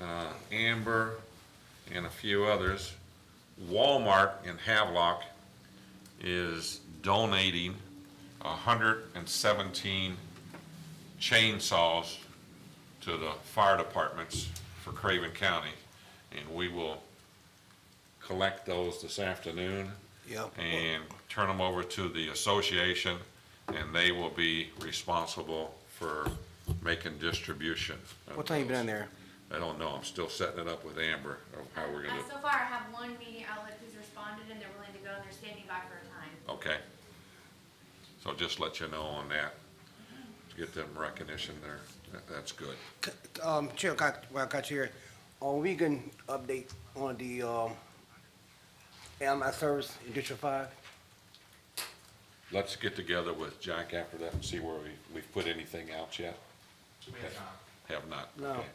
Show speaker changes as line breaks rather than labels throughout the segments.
uh, Amber, and a few others. Walmart in Havelock is donating hundred and seventeen chainsaws to the fire departments for Craven County. And we will collect those this afternoon
Yep.
and turn them over to the association, and they will be responsible for making distribution. of
What time you been
those.
on there?
I don't know, I'm still setting it up with Amber of how we're
Uh,
gonna,
so far, I have one media outlet who's responded and they're willing to go and they're standing by for a time.
okay. So just let you know on that, to get them recognition there, That- that's good.
C- Um, Chair, got, well, I got you here. On Regan update on the, um, AMI service in District Five?
Let's get together with Jack after that and see where we, we've put anything out yet.
We have not.
Have not,
No.
okay,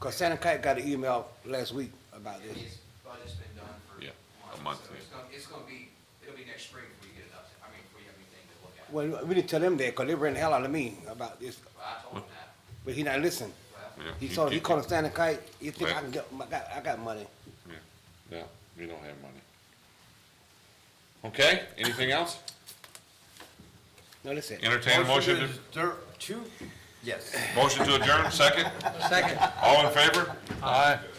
Cause Santa Kite got an email last week about this.
His budget's been done for
Yeah, a month,
months, so
yeah.
it's gonna, it's gonna be, it'll be next spring before you get it up, I mean, before you have anything to look at. But
Well, we didn't tell them that, cause they ran the hell out of me about this,
I told him that,
but he not listening.
well,
yeah.
He
you
told, he
keep-
called Santa Kite, he think I
Well-
can get, I got, I got money.
Yeah, yeah, we don't have money. Okay, anything else?
No, listen.
Entertain a motion, to-
to. Two? Yes.
motion to adjourn, second?
Second.
All in favor? Oh,
Aye.